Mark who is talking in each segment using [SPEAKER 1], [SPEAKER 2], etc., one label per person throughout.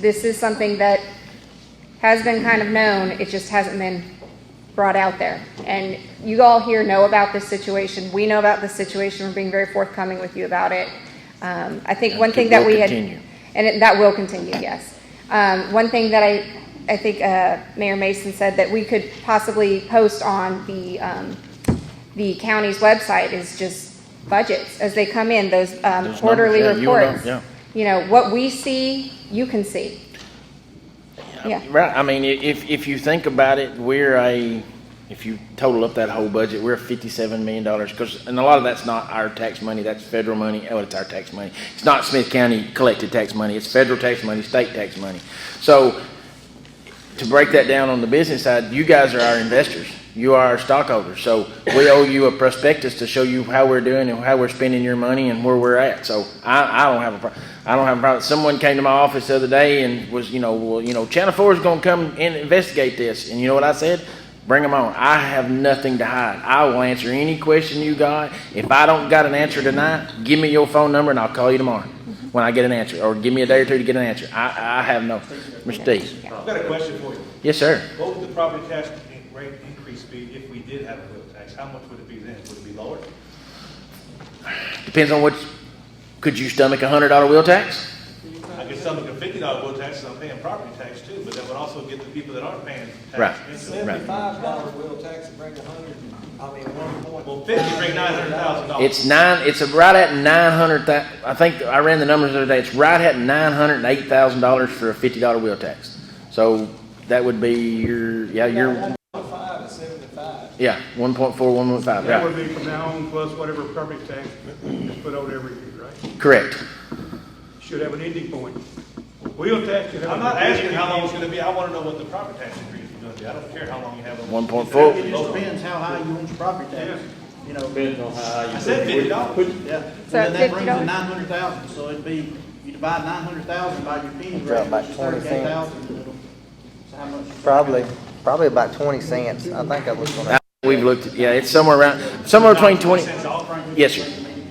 [SPEAKER 1] this is something that has been kind of known, it just hasn't been brought out there. And you all here know about this situation, we know about this situation, we're being very forthcoming with you about it. Um, I think one
[SPEAKER 2] It
[SPEAKER 1] thing that
[SPEAKER 2] will
[SPEAKER 1] we had.
[SPEAKER 2] continue.
[SPEAKER 1] And it- that will continue, yes. Um, one thing that I, I think, uh, Mayor Mason said that we could possibly post on the, um, the county's website is just budgets as they come in, those, um,
[SPEAKER 2] numbers,
[SPEAKER 1] quarterly
[SPEAKER 2] yeah, you will know,
[SPEAKER 1] reports.
[SPEAKER 2] yeah.
[SPEAKER 1] You know, what we see, you can see. Yeah.
[SPEAKER 2] Right, I mean, i- if, if you think about it, we're a, if you total up that whole budget, we're fifty-seven million dollars, because, and a lot of that's not our tax money, that's federal money, oh, it's our tax money. It's not Smith County collected tax money, it's federal tax money, state tax money. So, to break that down on the business side, you guys are our investors. You are our stockholders. So we owe you a prospectus to show you how we're doing and how we're spending your money and where we're at. So I, I don't have a pro- I don't have a problem. Someone came to my office the other day and was, you know, well, you know, Channel Four is going to come and investigate this. And you know what I said? Bring them on. I have nothing to hide. I will answer any question you got. If I don't got an answer tonight, give me your phone number and I'll call you tomorrow when I get an answer, or give me a day or two to get an answer. I, I have no mistakes.
[SPEAKER 3] I've got a question for you.
[SPEAKER 2] Yes, sir.
[SPEAKER 3] What would the property tax in- rate increase be if we did have a wheel tax? How much would it be then? Would it be lower?
[SPEAKER 2] Depends on what, could you stomach a hundred dollar wheel tax?
[SPEAKER 3] I guess something like a fifty dollar wheel tax, I'm paying property tax too, but that would also get the people that aren't paying
[SPEAKER 2] Right.
[SPEAKER 3] tax. instantly.
[SPEAKER 4] Seventy-five dollars will tax and bring a hundred, I mean, one point.
[SPEAKER 3] Well, fifty, bring nine hundred thousand dollars.
[SPEAKER 2] It's nine, it's right at nine hundred thou, I think, I ran the numbers the other day, it's right at nine hundred and eight thousand dollars for a fifty dollar wheel tax. So that would be your, yeah, your,
[SPEAKER 4] Five is seventy-five.
[SPEAKER 2] yeah, one point four, one point five,
[SPEAKER 5] That would
[SPEAKER 2] yeah,
[SPEAKER 5] be from now on plus whatever property tax is put out every year, right?
[SPEAKER 2] correct.
[SPEAKER 5] Should have an ending point. Wheel tax should have.
[SPEAKER 3] I'm
[SPEAKER 5] an
[SPEAKER 3] not
[SPEAKER 5] ending
[SPEAKER 3] asking how long it's
[SPEAKER 5] point.
[SPEAKER 3] gonna be, I wanna know what the property tax increase is gonna be. I don't care how long you have. it.
[SPEAKER 2] One point four.
[SPEAKER 6] It just depends how high you want your property tax, you know.
[SPEAKER 7] Depends on how you.
[SPEAKER 3] I said fifty dollars.
[SPEAKER 6] Yeah,
[SPEAKER 1] So
[SPEAKER 6] and then that brings
[SPEAKER 1] $50?
[SPEAKER 6] in nine hundred thousand, so it'd be, you divide nine hundred thousand by your penny
[SPEAKER 8] Drop
[SPEAKER 6] rate,
[SPEAKER 8] by
[SPEAKER 6] which is
[SPEAKER 8] 20
[SPEAKER 6] thirty-eight thousand. So how much?
[SPEAKER 8] Probably, probably about twenty cents. I think I was gonna,
[SPEAKER 2] We've looked, at- yeah, it's somewhere around, somewhere between twenty,
[SPEAKER 3] Cents off, Frank?
[SPEAKER 2] yes, sir,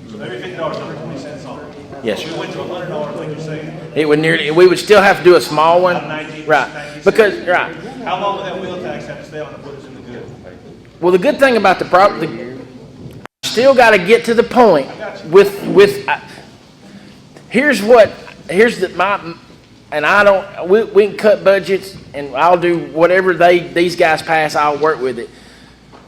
[SPEAKER 3] So every fifty dollars, hundred twenty cents off.
[SPEAKER 2] yes,
[SPEAKER 3] If
[SPEAKER 2] sir.
[SPEAKER 3] we went to a hundred dollars, like you're saying,
[SPEAKER 2] It would nearly, we would still have to do a small one,
[SPEAKER 3] About 19,
[SPEAKER 2] right,
[SPEAKER 3] 19.
[SPEAKER 2] because, right.
[SPEAKER 3] how long would that wheel tax have to stay on to put us in the good?
[SPEAKER 2] Well, the good thing about the prop, the, still gotta get to the point
[SPEAKER 3] got you.
[SPEAKER 2] with, with, I- here's what, here's the, my, and I don't, we, we can cut budgets and I'll do whatever they, these guys pass, I'll work with it.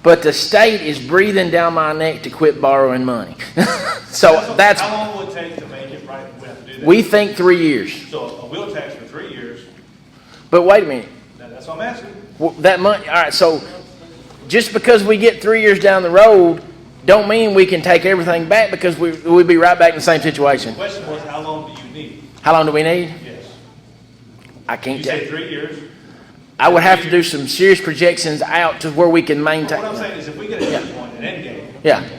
[SPEAKER 2] But the state is breathing down my neck to quit borrowing money. So
[SPEAKER 3] what-
[SPEAKER 2] that's,
[SPEAKER 3] How long will it take to make it right, we have to do that?
[SPEAKER 2] we think three years,
[SPEAKER 3] So a wheel tax for three years,
[SPEAKER 2] but wait a minute.
[SPEAKER 3] that- that's what I'm asking.
[SPEAKER 2] Well, that money, all right, so just because we get three years down the road, don't mean we can take everything back because we, we'd be right back in the same situation.
[SPEAKER 3] The question was, how long do you need?
[SPEAKER 2] How long do we need?
[SPEAKER 3] Yes.
[SPEAKER 2] I can't
[SPEAKER 3] You
[SPEAKER 2] tell.
[SPEAKER 3] say three years.
[SPEAKER 2] I would have to do some serious projections out to where we can
[SPEAKER 3] But What I'm
[SPEAKER 2] maintain.
[SPEAKER 3] saying is if we get a good one, an end game,
[SPEAKER 2] Yeah.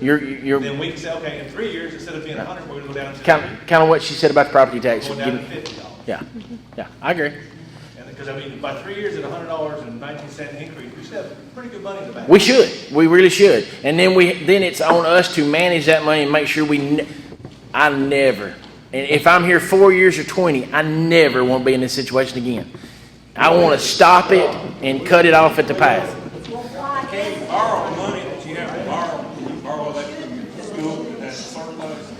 [SPEAKER 2] You're, you're,
[SPEAKER 3] then we can say, okay, in three years, instead of being a hundred, we're gonna go down to
[SPEAKER 2] kind
[SPEAKER 3] three,
[SPEAKER 2] of, kind of what she said about the property tax.
[SPEAKER 3] going down to fifty dollars.
[SPEAKER 2] Yeah, yeah, I agree.
[SPEAKER 3] And, because I mean, by three years at a hundred dollars and nineteen cent increase, we should have pretty good money in the bank.
[SPEAKER 2] We should. We really should. And then we then it's on us to manage that money and make sure we. Ne- I never. And if I'm here four years or twenty, I never want to be in this situation again. I want to stop it and cut it off at the path.
[SPEAKER 9] Can't borrow money that you have to borrow, you borrow that from your school, that's surplus.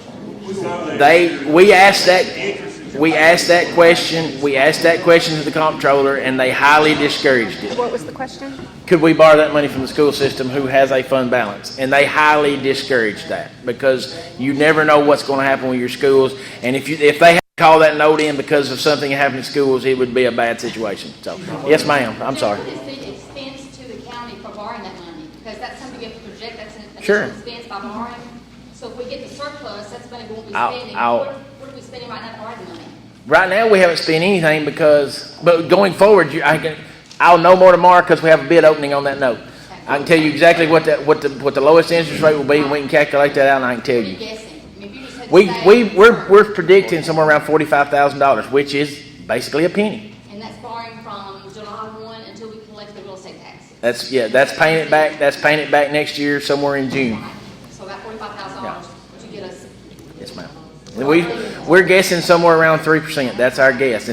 [SPEAKER 9] So
[SPEAKER 2] They we asked that we asked that question. We asked that question to the comptroller, and they highly discouraged it.
[SPEAKER 1] What was the question?
[SPEAKER 2] could we borrow that money from the school system who has a fund balance? And they highly discourage that because you never know what's going to happen with your schools. And if you, if they had to call that note in because of something that happened to schools, it would be a bad situation. So, yes, ma'am, I'm sorry.
[SPEAKER 10] What is the expense to the county for borrowing that money? Because that's something you have to project, that's an
[SPEAKER 2] Sure.
[SPEAKER 10] additional expense by borrowing. So if we get the surplus, that's money we won't be
[SPEAKER 2] I'll-
[SPEAKER 10] spending.
[SPEAKER 2] I'll-
[SPEAKER 10] What what are we spending right now to borrow the money?
[SPEAKER 2] Right now, we haven't spent anything because, but going forward, you, I can, I'll know more tomorrow because we have a bid opening on that note. I can tell you exactly what that, what the, what the lowest interest rate will be, and we can calculate that out, and I can tell
[SPEAKER 10] What are you
[SPEAKER 2] you.
[SPEAKER 10] guessing? I mean, if you just had to
[SPEAKER 2] We,
[SPEAKER 10] say-
[SPEAKER 2] we, we're, we're predicting somewhere around forty-five thousand dollars, which is basically a penny.
[SPEAKER 10] And that's borrowing from July one until we collect the real estate tax.
[SPEAKER 2] That's, yeah, that's paying it back, that's paying it back next year somewhere in June.
[SPEAKER 10] Right? So about forty-five thousand dollars to get us.
[SPEAKER 2] Yes, ma'am. And we, we're guessing somewhere around three percent, that's our guess.